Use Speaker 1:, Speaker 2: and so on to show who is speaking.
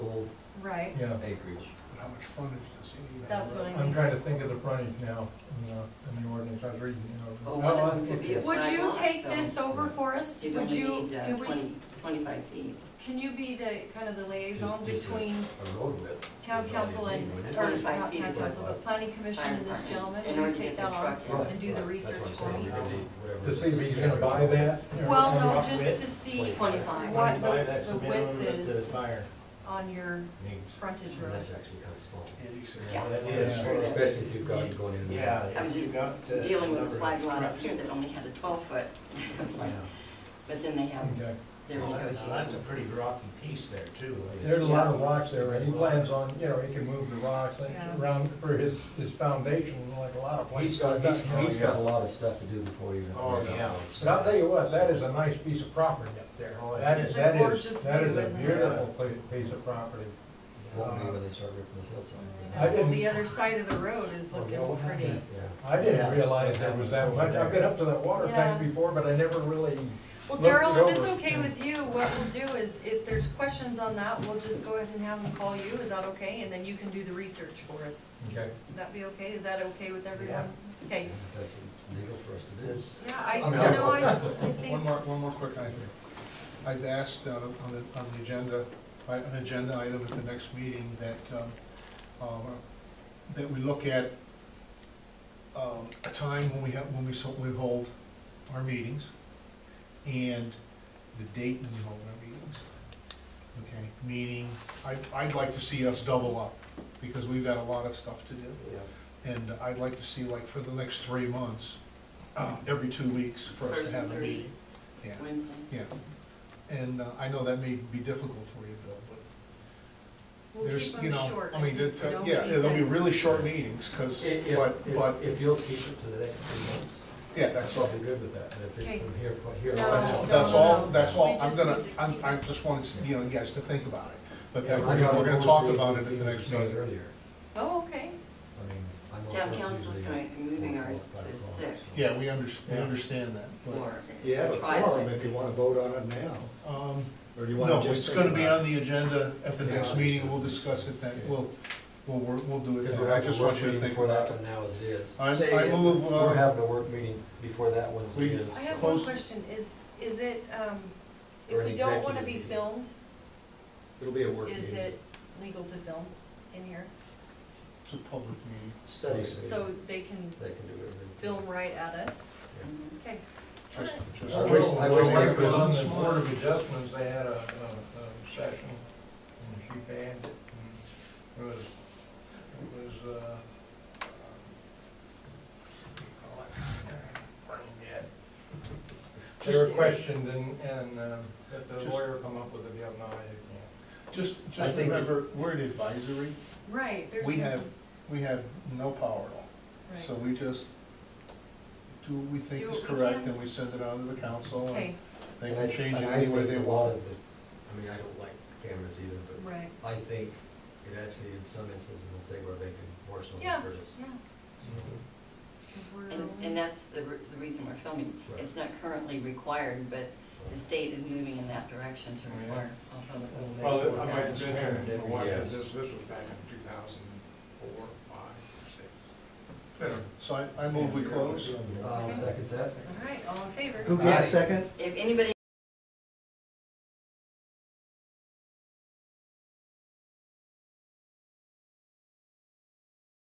Speaker 1: right?
Speaker 2: yeah.
Speaker 3: acreage.
Speaker 4: But how much frontage does he need?
Speaker 1: That's what I
Speaker 2: I'm trying to think of the frontage now, you know, in the ordinance, I was reading, you know.
Speaker 5: Well, one of them could be a
Speaker 1: Would
Speaker 5: flag
Speaker 1: you
Speaker 5: lot,
Speaker 1: take
Speaker 5: so
Speaker 1: this over for us?
Speaker 5: You'd
Speaker 1: Would
Speaker 5: only
Speaker 1: you?
Speaker 5: need uh,
Speaker 1: and would-
Speaker 5: twenty, twenty-five feet.
Speaker 1: Can you be the, kind of the liaison
Speaker 3: Just- just a-
Speaker 1: between
Speaker 3: A road width.
Speaker 1: town
Speaker 3: is all you
Speaker 1: council
Speaker 3: need,
Speaker 1: and,
Speaker 3: wouldn't it?
Speaker 1: or
Speaker 5: Twenty-five
Speaker 1: not
Speaker 5: feet
Speaker 1: town
Speaker 5: is
Speaker 1: council,
Speaker 3: what-
Speaker 1: but planning commission
Speaker 5: Fire
Speaker 1: and this
Speaker 5: department,
Speaker 1: gentleman,
Speaker 5: in
Speaker 1: will
Speaker 5: order
Speaker 1: you
Speaker 5: to
Speaker 1: take
Speaker 5: get the
Speaker 1: that on?
Speaker 5: truck in.
Speaker 3: Right,
Speaker 1: and do the
Speaker 3: right. That's
Speaker 1: research
Speaker 3: what I'm
Speaker 1: for
Speaker 3: saying.
Speaker 1: me?
Speaker 3: You're gonna need whatever
Speaker 2: To
Speaker 3: the
Speaker 2: see if he's gonna
Speaker 3: standard
Speaker 2: buy
Speaker 3: is.
Speaker 2: that. you know,
Speaker 1: Well,
Speaker 2: and
Speaker 1: no,
Speaker 2: rough
Speaker 1: just
Speaker 2: width.
Speaker 1: to see
Speaker 3: Wait.
Speaker 5: Twenty-five.
Speaker 1: What the-
Speaker 6: Twenty-five, that's
Speaker 1: the
Speaker 6: minimum
Speaker 1: width
Speaker 6: that the
Speaker 1: is.
Speaker 6: Fire.
Speaker 1: on your
Speaker 3: Needs.
Speaker 1: frontage
Speaker 3: And
Speaker 1: road.
Speaker 3: That's actually kind of small.
Speaker 4: Eighty-six.
Speaker 5: Yeah.
Speaker 6: That
Speaker 2: Yeah.
Speaker 6: is for-
Speaker 3: Especially if you've got it going in. there.
Speaker 6: Yeah.
Speaker 5: I was
Speaker 6: if you
Speaker 5: just
Speaker 6: got the
Speaker 5: Dealing with
Speaker 6: number
Speaker 5: a
Speaker 6: of
Speaker 5: flag lot up
Speaker 6: trucks.
Speaker 5: here that only had a twelve-foot,
Speaker 6: Yeah.
Speaker 5: but then they have
Speaker 2: Okay.
Speaker 5: their
Speaker 6: Well, that's, that's a
Speaker 5: negotiation.
Speaker 6: pretty rocky piece there too.
Speaker 2: There's a lot of rocks there, and he plans on, you know, he can move the rocks like,
Speaker 1: Yeah.
Speaker 2: around for his, his foundation, like a lot of places.
Speaker 3: He's got,
Speaker 2: I've
Speaker 3: he's,
Speaker 2: done.
Speaker 3: he's got a lot of stuff to do before you.
Speaker 6: Oh, yeah.
Speaker 2: But I'll tell you what, that is a nice piece of property up there.
Speaker 6: Oh,
Speaker 2: That
Speaker 1: It's
Speaker 2: is,
Speaker 1: a
Speaker 2: that is,
Speaker 1: gorgeous
Speaker 2: that is
Speaker 1: view,
Speaker 2: a
Speaker 1: isn't it?
Speaker 2: beautiful pla- piece of property.
Speaker 3: Won't be when they start ripping this
Speaker 2: I
Speaker 3: hillside.
Speaker 1: Well,
Speaker 2: didn't-
Speaker 1: the other side of the road is looking pretty.
Speaker 3: Yeah.
Speaker 2: I didn't
Speaker 6: Yeah.
Speaker 2: realize there was that much. I've been up to that water tank
Speaker 1: Yeah.
Speaker 2: before, but I never really,
Speaker 1: Well,
Speaker 2: Look,
Speaker 1: Daryl, if it's
Speaker 2: Rover.
Speaker 1: okay with you, what we'll do is, if there's questions on that, we'll just go ahead and have them call you, is that okay? And then you can do the research for us.
Speaker 2: okay.
Speaker 1: Would that be okay? Is that okay with everyone? Okay.
Speaker 3: That's legal for us to do.
Speaker 1: Yeah, I,
Speaker 3: I mean,
Speaker 1: you know,
Speaker 3: I-
Speaker 1: I, I
Speaker 4: One
Speaker 1: think,
Speaker 4: more, one more quick item. I've asked uh, on the, on the agenda, I- an agenda item at the next meeting that, um, um, that we look at um, a time when we have, when we, so- we hold our meetings and the date when we hold our meetings. Okay, meaning, I, I'd like to see us double up because we've got a lot of stuff to do. And I'd like to see like for the next three months, uh, every two weeks for us to
Speaker 5: First and
Speaker 4: have a
Speaker 5: third
Speaker 4: meeting. Yeah,
Speaker 5: Wednesday.
Speaker 4: yeah. And uh, I know that may be difficult for you, Bill, but
Speaker 1: we'll
Speaker 4: there's,
Speaker 1: keep
Speaker 4: you
Speaker 1: them
Speaker 4: know,
Speaker 1: short.
Speaker 4: I mean,
Speaker 1: think
Speaker 4: it,
Speaker 1: we
Speaker 4: uh,
Speaker 1: don't
Speaker 4: yeah,
Speaker 1: need
Speaker 4: there'll
Speaker 1: to-
Speaker 4: be really short meetings, cause,
Speaker 3: If, if-
Speaker 4: but, but,
Speaker 3: if, if you'll keep it to the next three months,
Speaker 4: yeah,
Speaker 3: that's
Speaker 4: that's all.
Speaker 3: all be good with that, but if
Speaker 1: Okay.
Speaker 3: it's from here, from here. on
Speaker 1: No,
Speaker 4: That's,
Speaker 3: out-
Speaker 4: that's
Speaker 1: no,
Speaker 4: all,
Speaker 1: no.
Speaker 4: that's all,
Speaker 1: We
Speaker 4: I'm
Speaker 1: just
Speaker 4: gonna,
Speaker 1: need to
Speaker 4: I'm,
Speaker 1: keep
Speaker 4: I
Speaker 1: it.
Speaker 4: just wanted, you know, you guys to think about it. But
Speaker 3: Yeah,
Speaker 4: then we're, gonna- we're gonna talk
Speaker 3: opposed to
Speaker 4: about it at the
Speaker 3: even
Speaker 4: next
Speaker 3: started
Speaker 4: meeting.
Speaker 3: Earlier,
Speaker 1: Oh, okay.
Speaker 3: I mean, I'm. all
Speaker 5: Town
Speaker 3: for
Speaker 5: council's
Speaker 3: usually
Speaker 5: going, moving
Speaker 3: four,
Speaker 5: ours
Speaker 3: five
Speaker 5: to
Speaker 3: o'clock, so-
Speaker 5: six.
Speaker 4: Yeah, we under, we
Speaker 2: Yeah.
Speaker 4: understand that, but,
Speaker 5: Or.
Speaker 6: You have a
Speaker 5: try
Speaker 6: forum
Speaker 5: it.
Speaker 6: if you wanna vote on it now,
Speaker 4: um,
Speaker 6: or do you wanna
Speaker 4: no,
Speaker 6: just?
Speaker 4: it's
Speaker 6: think
Speaker 4: gonna be
Speaker 6: about
Speaker 4: on the agenda at the
Speaker 3: Yeah,
Speaker 4: next
Speaker 3: I'll
Speaker 4: meeting,
Speaker 3: just-
Speaker 4: we'll discuss it then,
Speaker 3: Okay.
Speaker 4: we'll, we'll, work- we'll do it
Speaker 3: Because
Speaker 4: then.
Speaker 3: we're
Speaker 4: I
Speaker 3: having
Speaker 4: just
Speaker 3: a work
Speaker 4: want you to
Speaker 3: meeting
Speaker 4: think
Speaker 3: before
Speaker 4: about
Speaker 3: that
Speaker 4: it.
Speaker 3: one now as it is.
Speaker 4: I,
Speaker 6: Say
Speaker 4: I
Speaker 6: again.
Speaker 4: move,
Speaker 3: We're
Speaker 4: uh,
Speaker 3: having a work meeting before that one as
Speaker 4: We-
Speaker 3: it is.
Speaker 1: I have one
Speaker 4: Close.
Speaker 1: question, is, is it, um,
Speaker 3: Or
Speaker 1: if
Speaker 3: an
Speaker 1: we don't wanna
Speaker 3: executive
Speaker 1: be
Speaker 3: meeting.
Speaker 1: filmed,
Speaker 3: It'll be a work meeting.
Speaker 1: is it legal to film in here?
Speaker 4: it's a public meeting.
Speaker 6: Study.
Speaker 3: Yeah.
Speaker 1: So they can
Speaker 3: They can do it.
Speaker 1: film right at us?
Speaker 5: Mhm.
Speaker 1: Okay.
Speaker 4: Just, just.
Speaker 3: I wish- I wish they
Speaker 2: It was
Speaker 3: could-
Speaker 2: on the Board of Adjustments, they had a, a, a session, and she banned it, and it was, it was, uh, um, what do you call it? Brain dead. They were
Speaker 4: Just-
Speaker 2: questioned, and, and, um, that the
Speaker 4: Just-
Speaker 2: lawyer come up with a deal, no, I
Speaker 4: Just,
Speaker 3: I
Speaker 4: just
Speaker 3: think-
Speaker 4: remember, we're an advisory,
Speaker 1: Right, there's.
Speaker 4: we
Speaker 1: no-
Speaker 4: have, we have no power at all.
Speaker 1: right.
Speaker 4: So we just do what we think
Speaker 1: Do
Speaker 4: is
Speaker 1: what we
Speaker 4: correct,
Speaker 1: can.
Speaker 4: and we send it out to the council,
Speaker 1: Okay,
Speaker 4: and they
Speaker 3: And
Speaker 4: can
Speaker 3: I-
Speaker 4: change it
Speaker 3: and I
Speaker 4: any way
Speaker 3: think
Speaker 4: they
Speaker 3: a lot
Speaker 4: want.
Speaker 3: of the- I mean, I don't like cameras either, but
Speaker 1: right,
Speaker 3: I think it actually, in some instances, will say where they can force
Speaker 1: Yeah.
Speaker 3: someone for this.
Speaker 1: yeah, because
Speaker 5: And,
Speaker 1: we're.
Speaker 5: and that's the, re- the reason we're filming.
Speaker 3: Right.
Speaker 5: It's not currently required, but the state is moving in that direction to
Speaker 2: Yeah.
Speaker 5: require all public.
Speaker 4: Mm-hmm.
Speaker 2: can't.
Speaker 6: Well, I might have been here and didn't
Speaker 3: watch it.
Speaker 2: this, this was back in two thousand four, five, six.
Speaker 4: So I, I move we close. Uh,
Speaker 3: I'll second that.
Speaker 1: All right, all in favor?
Speaker 6: Who got a second?
Speaker 5: If anybody